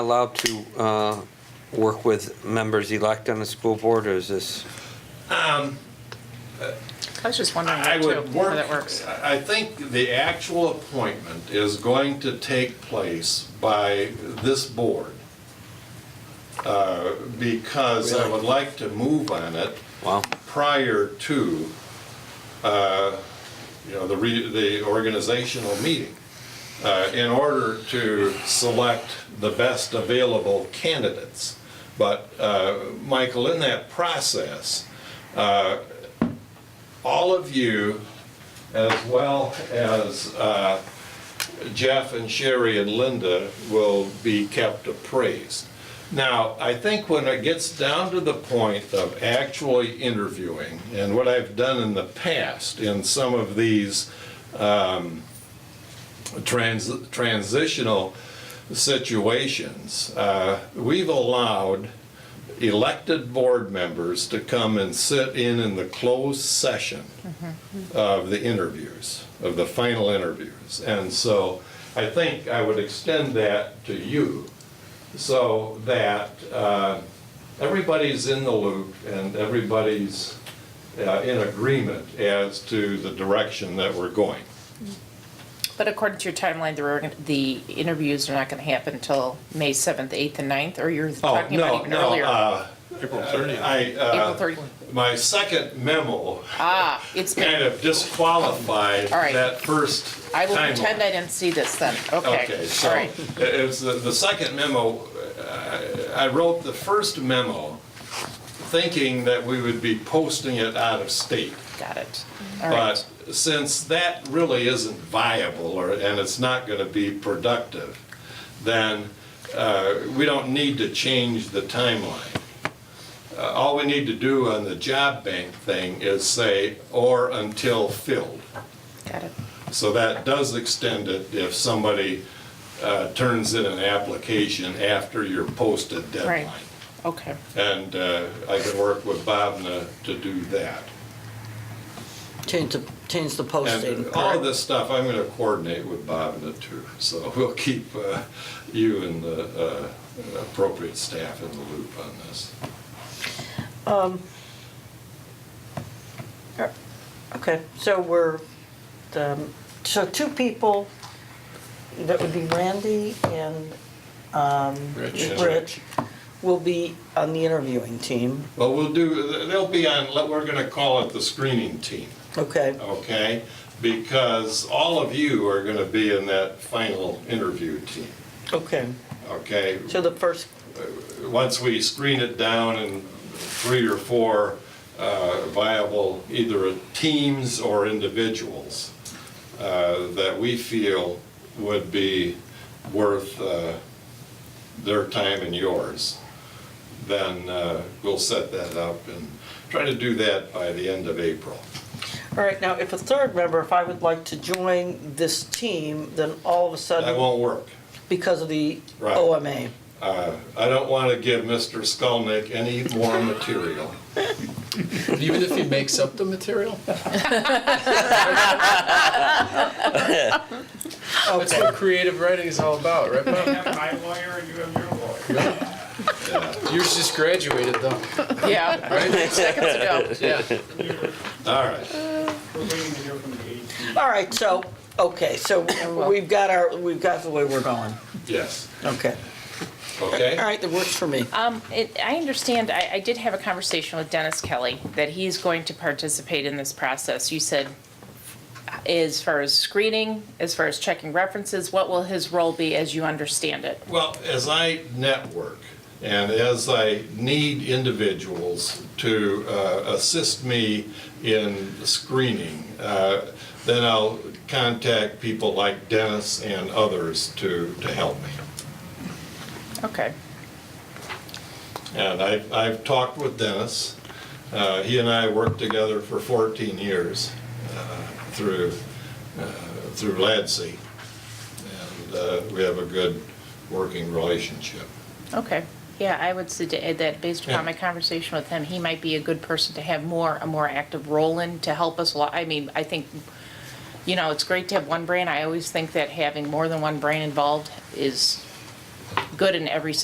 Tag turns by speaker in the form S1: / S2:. S1: allowed to uh, work with members-elect on the school board, or is this,
S2: I was just wondering
S3: I
S2: that too,
S3: would
S2: how
S3: work,
S2: that works.
S3: I I think the actual appointment is going to take place by this board. uh, Because I would like to move on it
S1: well,
S3: prior to, uh, you know, the, re- the organizational meeting uh, in order to select the best available candidates. But, uh, Michael, in that process, uh, all of you, as well as uh, Jeff and Sherry and Linda, will be kept appraised. Now, I think when it gets down to the point of actually interviewing, and what I've done in the past in some of these um, trans- transitional situations, uh, we've allowed elected board members to come and sit in in the closed session of the interviews, of the final interviews. And so I think I would extend that to you so that uh, everybody's in the loop and everybody's uh, in agreement as to the direction that we're going.
S2: But according to your timeline, the, org- the interviews are not going to happen until May 7th, 8th, and 9th, or you're
S3: Oh,
S2: talking about
S3: no,
S2: even
S3: no.
S2: earlier?
S3: uh,
S4: April
S3: I,
S2: April
S3: uh,
S2: 30th.
S3: my second memo
S2: Ah, it's
S3: kind
S2: been,
S3: of disqualified
S2: All right.
S3: that first
S2: I will
S3: timeline.
S2: pretend I didn't see this then. Okay,
S3: so
S2: all right.
S3: it was the, the second memo. uh, I wrote the first memo thinking that we would be posting it out of state.
S2: Got it. All right.
S3: But since that really isn't viable or, and it's not going to be productive, then uh, we don't need to change the timeline. Uh, All we need to do on the job bank thing is say, or until filled.
S2: Got it.
S3: So that does extend it if somebody uh, turns in an application after your posted
S2: Right.
S3: deadline.
S2: Okay.
S3: And uh, I can work with Bobna to do that.
S5: Change the, change the posting.
S3: And all of this stuff, I'm going to coordinate with Bobna too, so we'll keep uh, you and the uh, appropriate staff in the loop on this.
S5: Um, er, Okay, so we're, um, so two people, that would be Randy and
S3: Rich.
S5: Rich, will be on the interviewing team,
S3: Well, we'll do, they'll be on, we're going to call it the screening team.
S5: okay?
S3: okay? Because all of you are going to be in that final interview team,
S5: Okay,
S3: okay?
S5: so the first,
S3: Once we screen it down and three or four uh, viable, either teams or individuals uh, that we feel would be worth uh, their time and yours, then uh, we'll set that up and try to do that by the end of April.
S5: all right, now if a third member, if I would like to join this team, then all of a
S3: That
S5: sudden,
S3: won't work.
S5: because of the
S3: Right.
S5: OMA.
S3: Uh, I don't want to give Mr. Skolnick any more material.
S4: Even if he makes up the material? That's what creative writing is all about, right, Bob?
S6: have my lawyer and you have your lawyer.
S4: Yours just graduated, though,
S2: Yeah,
S4: right?
S2: seconds ago.
S4: Yeah.
S3: All right.
S6: We're waiting to hear from the AG.
S5: All right, so, okay, so we've got our, we've got the way we're going,
S3: Yes.
S5: okay.
S3: Okay?
S5: All right, that works for me.
S2: Um, it, I understand, I, I did have a conversation with Dennis Kelly, that he's going to participate in this process. You said, as far as screening, as far as checking references, what will his role be as you understand it?
S3: Well, as I network and as I need individuals to uh, assist me in screening, uh, then I'll contact people like Dennis and others to, to help me.
S2: Okay.
S3: And I, I've talked with Dennis. Uh, He and I worked together for 14 years uh, through, uh, through LADSI. And uh, we have a good working relationship.
S2: Okay, yeah, I would suggest that based
S3: Yeah.
S2: upon my conversation with him, he might be a good person to have more, a more active role in to help us a lot. I mean, I think, you know, it's great to have one brain. I always think that having more than one brain involved is good in every